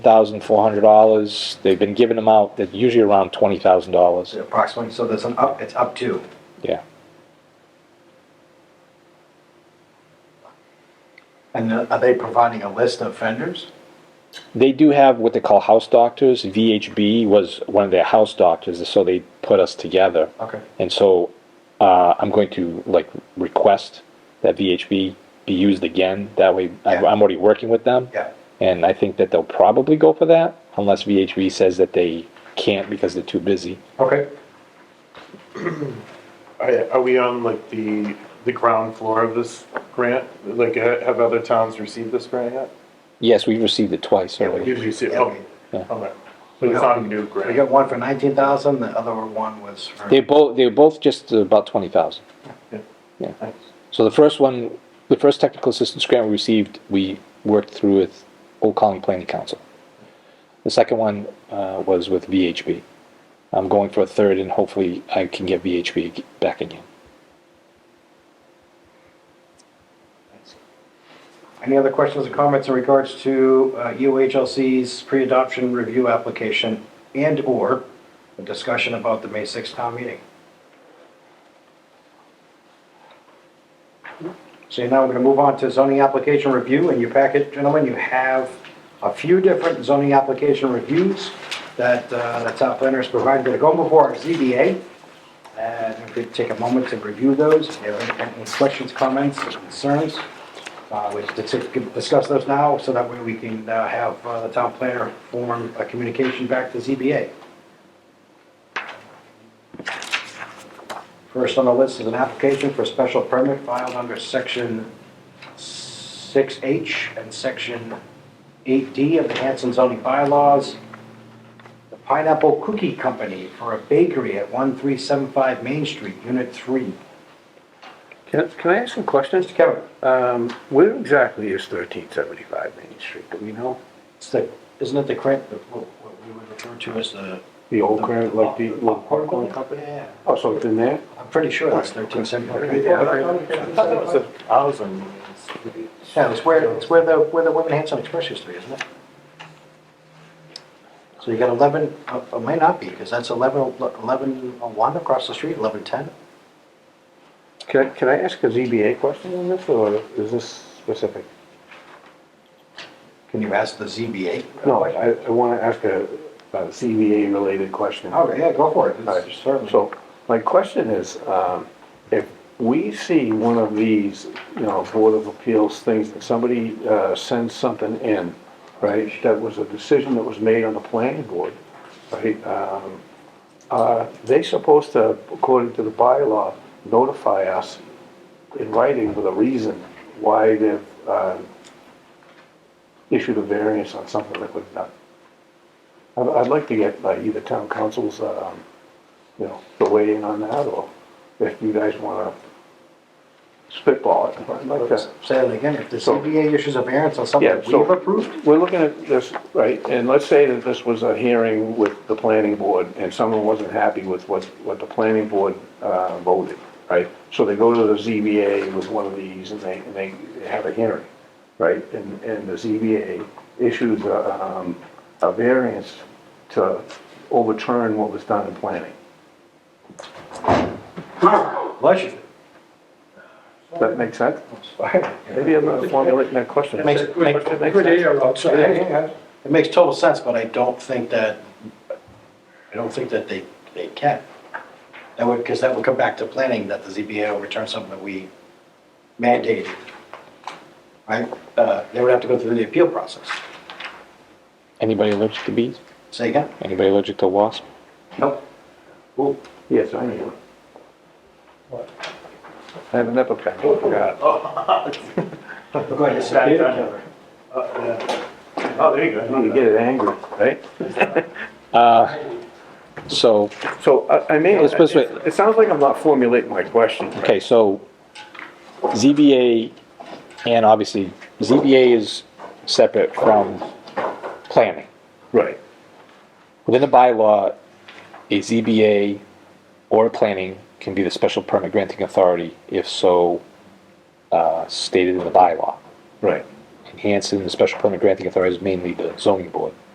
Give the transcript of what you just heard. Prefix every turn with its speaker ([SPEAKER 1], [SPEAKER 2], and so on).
[SPEAKER 1] thousand four hundred dollars. They've been giving them out, they're usually around twenty thousand dollars.
[SPEAKER 2] approximately, so there's an up, it's up to.
[SPEAKER 1] Yeah.
[SPEAKER 2] And are they providing a list of vendors?
[SPEAKER 1] They do have what they call house doctors. VHB was one of their house doctors, so they put us together.
[SPEAKER 2] Okay.
[SPEAKER 1] And so uh, I'm going to like request that VHB be used again. That way I-
[SPEAKER 2] Yeah.
[SPEAKER 1] I'm already working with them.
[SPEAKER 2] Yeah.
[SPEAKER 1] And I think that they'll probably go for that unless VHB says that they can't because they're too busy.
[SPEAKER 2] Okay.
[SPEAKER 3] Are are we on like the, the ground floor of this grant? Like, ha- have other towns received this grant yet?
[SPEAKER 1] Yes, we've received it twice
[SPEAKER 2] Yeah,
[SPEAKER 1] already.
[SPEAKER 3] Did you see,
[SPEAKER 2] Yeah,
[SPEAKER 3] oh,
[SPEAKER 1] we-
[SPEAKER 3] all right. But it's not a new
[SPEAKER 2] We
[SPEAKER 3] grant.
[SPEAKER 2] got one for nineteen thousand, the other one was for.
[SPEAKER 1] They both they were both just about twenty thousand.
[SPEAKER 3] Yeah.
[SPEAKER 1] Yeah.
[SPEAKER 3] Thanks.
[SPEAKER 1] So the first one, the first technical assistance grant we received, we worked through with Old Colony Planning Council. The second one uh, was with VHB. I'm going for a third, and hopefully I can get VHB ag- back again.
[SPEAKER 2] Any other questions or comments in regards to uh, UHLC's pre-adoption review application and/or a discussion about the May 6th town meeting? So now we're going to move on to zoning application review. In your packet, gentlemen, you have a few different zoning application reviews that uh, the top planner has provided that go before our ZBA. And if we could take a moment to review those, if you have any any questions, comments, concerns, uh, we just dis- discuss those now so that way we can uh, have uh, the town planner form a communication back to ZBA. First on the list is an application for special permit filed under section 6H and section 8D of the Hanson zoning bylaws. The Pineapple Cookie Company for a bakery at 1375 Main Street, Unit 3.
[SPEAKER 4] Can, can I ask some questions?
[SPEAKER 2] Mr. Kevin,
[SPEAKER 4] Um, where exactly is thirteen seventy-five Main Street? Do we know?
[SPEAKER 2] it's the, isn't it the current, the- what what we would refer to as the
[SPEAKER 4] The old current, like the old popcorn company?
[SPEAKER 2] Yeah,
[SPEAKER 4] Oh, so it's in there?
[SPEAKER 2] I'm pretty sure that's thirteen seventy.
[SPEAKER 3] Yeah, I- I thought it was a thousand.
[SPEAKER 2] Yeah, it's where, it's where the, where the Women Hands on Express used to be, isn't it? So you got eleven, uh, it might not be, because that's eleven, eleven, oh one across the street, eleven ten.
[SPEAKER 4] Can, I- can I ask a ZBA question on this, or is this specific?
[SPEAKER 2] Can you ask the ZBA?
[SPEAKER 4] No, I, I wanna ask a, a CBA-related question.
[SPEAKER 2] Oh, yeah, go for it,
[SPEAKER 4] Alright,
[SPEAKER 2] It's certainly.
[SPEAKER 4] So, my question is, um, if we see one of these, you know, Board of Appeals things, that somebody, uh, sends something in, right, that was a decision that was made on the planning board, right, um, are they supposed to, according to the bylaw, notify us in writing with a reason why they've, um, issued a variance on something that was done? I'd, I'd like to get like, either town council's, um, you know, the weigh in on that, or if you guys wanna spitball it, I'd like to.
[SPEAKER 2] Say that again, if the
[SPEAKER 4] So-
[SPEAKER 2] ZBA issues a variance on something
[SPEAKER 4] Yeah,
[SPEAKER 2] that
[SPEAKER 4] so-
[SPEAKER 2] we've approved,
[SPEAKER 4] We're looking at this, right, and let's say that this was a hearing with the planning board, and someone wasn't happy with what, what the planning board, uh, voted, right? So they go to the ZBA with one of these, and they, and they have a hearing, right? And, and the ZBA issues a, um, a variance to overturn what was done in planning.
[SPEAKER 2] bless you.
[SPEAKER 4] Does that make sense? Maybe I'm not formulating that question.
[SPEAKER 2] Makes- make-
[SPEAKER 4] Does that make sense?
[SPEAKER 2] Yeah, yeah, yeah. It makes total sense, but I don't think that, I don't think that they, they can. That would, because that would come back to planning, that the ZBA will return something that we mandated. Right? Uh, They would have to go through the appeal process.
[SPEAKER 1] Anybody allergic to bees?
[SPEAKER 2] Say again?
[SPEAKER 1] Anybody allergic to wasps?
[SPEAKER 2] Nope. Well,
[SPEAKER 4] Yes, I am. I have an EpiPen, I forgot.
[SPEAKER 2] go ahead, it's
[SPEAKER 3] Bad
[SPEAKER 2] okay.
[SPEAKER 3] time. Uh, yeah. Oh, there you go.
[SPEAKER 4] You get it angry, right?
[SPEAKER 1] So,
[SPEAKER 4] So I, I mean,
[SPEAKER 1] Let's put it this
[SPEAKER 4] it sounds like I'm not formulating my question.
[SPEAKER 1] okay, so ZBA and obviously ZBA is separate from planning.
[SPEAKER 4] Right,
[SPEAKER 1] Within the bylaw, a ZBA or planning can be the special permit granting authority if so uh, stated in the bylaw.
[SPEAKER 4] right.
[SPEAKER 1] And Hanson, the special permit granting authority is mainly the zoning board.